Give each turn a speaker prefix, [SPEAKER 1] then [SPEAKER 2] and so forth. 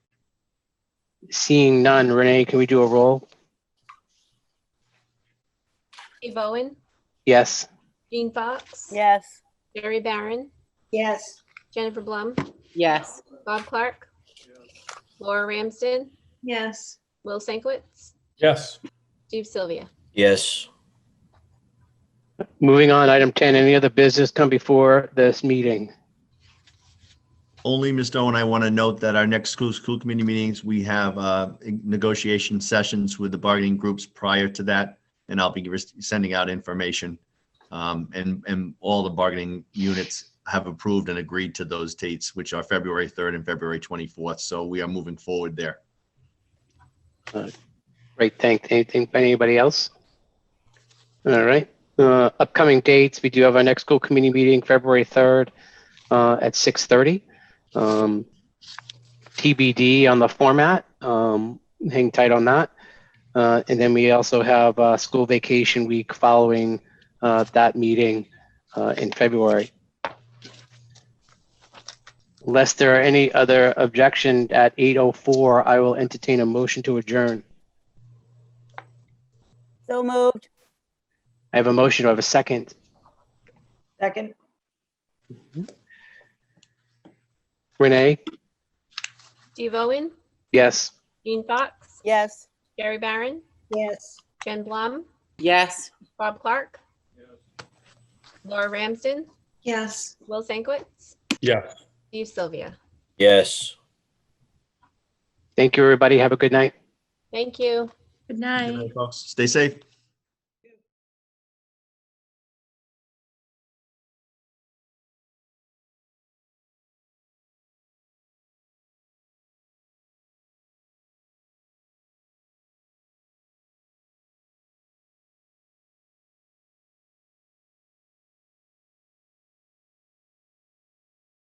[SPEAKER 1] Seeing none, Renee, can we do a roll?
[SPEAKER 2] Dave Owen,
[SPEAKER 1] Yes.
[SPEAKER 2] Jean Fox.
[SPEAKER 3] Yes.
[SPEAKER 2] Jerry Barron,
[SPEAKER 4] Yes.
[SPEAKER 2] Jennifer Blum,
[SPEAKER 3] Yes.
[SPEAKER 2] Bob Clark, Laura Ramsden,
[SPEAKER 4] Yes.
[SPEAKER 2] Will Sankwitz,
[SPEAKER 5] Yes.
[SPEAKER 2] Steve Sylvia.
[SPEAKER 6] Yes.
[SPEAKER 1] Moving on, item 10, any other business come before this meeting?
[SPEAKER 7] Only, Ms. Owen, I want to note that our next school, school committee meetings, we have uh, negotiation sessions with the bargaining groups prior to that. And I'll be res- sending out information. Um, And, and all the bargaining units have approved and agreed to those dates, which are February 3rd and February 24th. So we are moving forward there.
[SPEAKER 1] Great, thank, anything, anybody else? All right, uh, upcoming dates, we do have our next school committee meeting, February 3rd, uh, at 6:30. Um, TBD on the format, um, hang tight on that. Uh, and then we also have, uh, school vacation week following, uh, that meeting, uh, in February. Unless there are any other objection at 8:04, I will entertain a motion to adjourn.
[SPEAKER 3] So moved.
[SPEAKER 1] I have a motion. Do I have a second?
[SPEAKER 4] Second?
[SPEAKER 1] Renee?
[SPEAKER 2] Dave Owen,
[SPEAKER 1] Yes.
[SPEAKER 2] Jean Fox,
[SPEAKER 3] Yes.
[SPEAKER 2] Jerry Barron,
[SPEAKER 4] Yes.
[SPEAKER 2] Jen Blum,
[SPEAKER 3] Yes.
[SPEAKER 2] Bob Clark, Laura Ramsden,
[SPEAKER 4] Yes.
[SPEAKER 2] Will Sankwitz,
[SPEAKER 5] Yes.
[SPEAKER 2] Steve Sylvia.
[SPEAKER 6] Yes.
[SPEAKER 1] Thank you, everybody. Have a good night.
[SPEAKER 2] Thank you.
[SPEAKER 4] Good night.
[SPEAKER 7] Folks, Stay safe.